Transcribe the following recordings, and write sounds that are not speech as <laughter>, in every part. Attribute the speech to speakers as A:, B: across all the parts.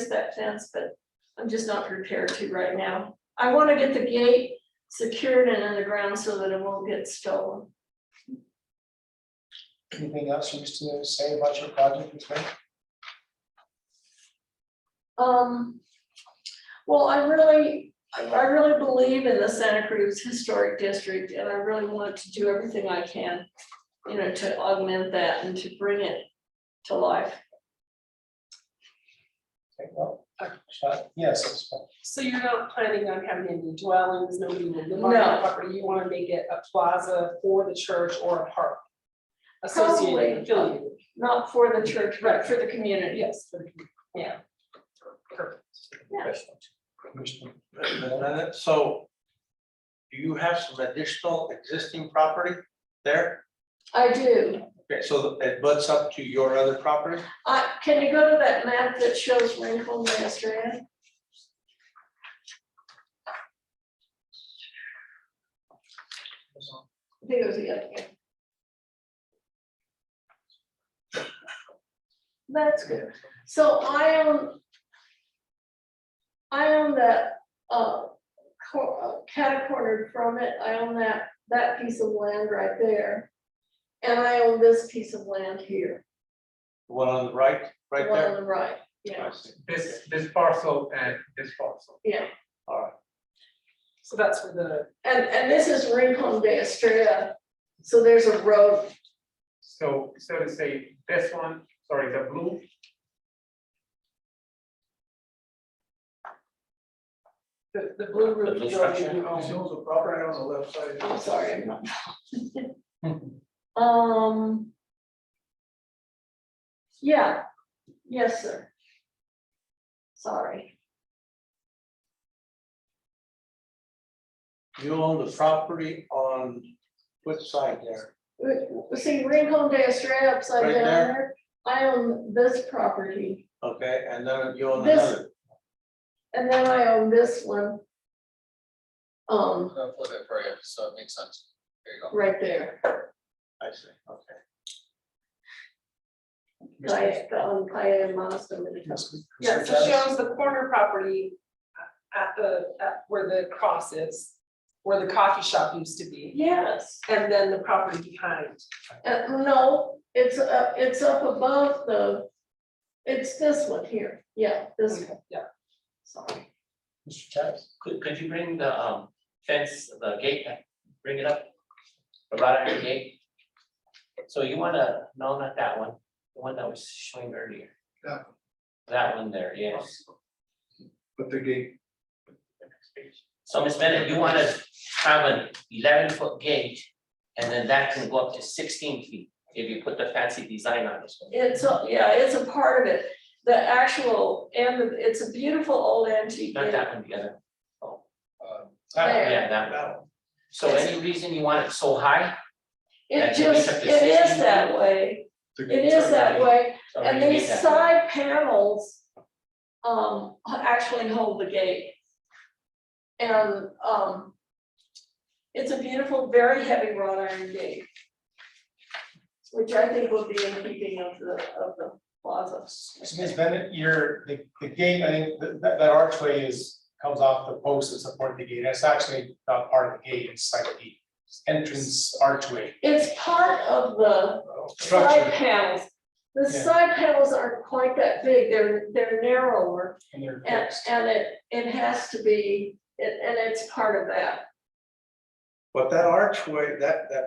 A: is that fence, but I'm just not prepared to right now. I wanna get the gate secured and in the ground so that it won't get stolen.
B: Anything else you wish to say about your project, Ms. Wade?
A: Um, well, I really, I I really believe in the Santa Cruz Historic District and I really want to do everything I can, you know, to augment that and to bring it to life.
B: Okay, well, uh, yes, Ms. Wade.
C: So you're not planning on having any dwellings, nobody will live on
A: No.
C: that property, you wanna make it a plaza for the church or a park?
A: Probably.
C: Associated, affiliated,
A: Not for the church, but for the community.
C: yes, for the community. yeah. Perfect.
B: Commissioner,
D: Wait a minute, So do you have some additional existing property there?
A: I do.
D: Okay, so it butts up to your other property?
A: Uh, can you go to that map that shows Rincon Master Inn? I think it was the other one. That's good. So I own. I own that, uh, cor- uh, catacornered from it. I own that, that piece of land right there. And I own this piece of land here,
D: The One on the right,
A: the
D: right
A: one on
D: there?
A: the right, yeah,
D: I see.
E: this, this parcel and this parcel.
A: yeah.
D: All right,
C: So that's for the,
A: And, and this is Rincon de Estrella, so there's a road,
E: So, so to say, this one, sorry, the blue.
C: the, the blue roof building you own,
E: the property on the left side.
A: I'm sorry, I'm not. Um. Yeah, yes, sir. Sorry,
D: you own the property on which side there?
A: Uh, see, Rincon de Estrella upside
D: Right
A: down there,
D: there.
A: I own this property,
D: Okay, and then you own
A: This-
D: another.
A: and then I own this one. Um,
F: I'll flip it for you, so it makes sense. There you go.
A: right there,
D: I see, okay.
A: I, um, I am honest, I'm gonna tell.
B: Ms. Wade.
C: yeah, so she
B: Travis?
C: owns the corner property at the, at where the cross is, where the coffee shop used to be,
A: Yes.
C: and then the property behind.
A: Uh, no, it's, uh, it's up above the, it's this one here, yeah, this one,
C: Yeah,
A: sorry.
B: Mr. Travis?
G: Could, could you bring the um fence, the gate, back? bring it up? The wrought iron gate? So you wanna, no, not that one, the one that was showing earlier.
E: That
G: That one there, yes.
E: But the gate.
G: So Ms. Bennett, you wanna have an eleven foot gate and then that can go up to sixteen feet if you put the fancy design on this one.
A: It's, a- yeah, it's a part of it, the actual, and the- it's a beautiful old antique.
G: Not that one, the other.
B: Uh,
F: Um,
D: That one,
A: There.
G: Yeah, that one. So any reason you want it so high?
A: It
G: That's at least
A: just,
G: up
A: it
G: to
A: is
G: 16.
A: that way,
F: the
A: it
F: gates
A: is
F: are
A: that
F: ready.
A: way,
G: So
A: and
G: Oh, you need
A: these
G: that.
A: side panels um, actually hold the gate. And, um, it's a beautiful, very heavy wrought iron gate. Which I think will be in keeping of the, of the plaza.
B: So Ms. Bennett, your, the, the gate, I think, that, that that archway is, comes off the posts that support the gate. That's actually not part of the gate, it's like the entrance archway
A: It's part of the side
B: structure.
A: panels. The
B: Yeah.
A: side panels aren't quite that big, they're, they're narrower.
B: And they're
A: And,
B: fixed.
A: and it, it has to be, it- and it's part of that.
D: But that archway, that, that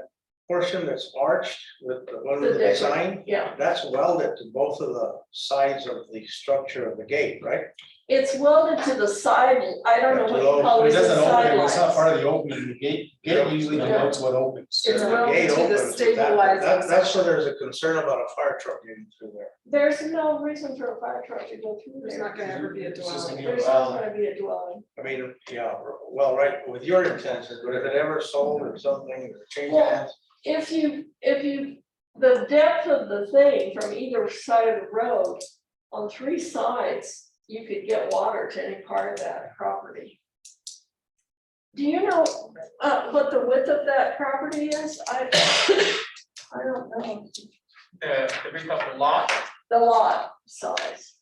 D: portion that's arched with the one
A: The
D: with the
A: decorative.
D: design,
A: Yeah,
D: that's welded to both of the sides of the structure of the gate, right?
A: it's welded to the side, I don't know what you
B: But
A: call
B: It
A: it, the
B: doesn't open, it's not
A: sidelines.
B: part of the opening, the gate, gate usually denotes what opens.
C: It's
D: The
C: welded
D: gate
C: to the
D: opens with that.
C: stabilizing
D: That- That's where there's a concern about a fire truck getting through there.
A: There's no reason for a fire truck to go through
C: there's
A: there.
C: not gonna ever be a
B: It's just
C: dwelling.
B: gonna be a
A: There's
B: plaza.
A: not gonna be a dwelling.
D: I mean, yeah, well, right, with your intentions, but if it ever sold or something, or changed
A: Well,
D: hands.
A: If you, if you, the depth of the thing from either side of the road, on three sides, you could get water to any part of that property. Do you know, uh, what the width of that property is? I, <coughs> I don't know.
E: The, the width of the lot,
A: The lot size.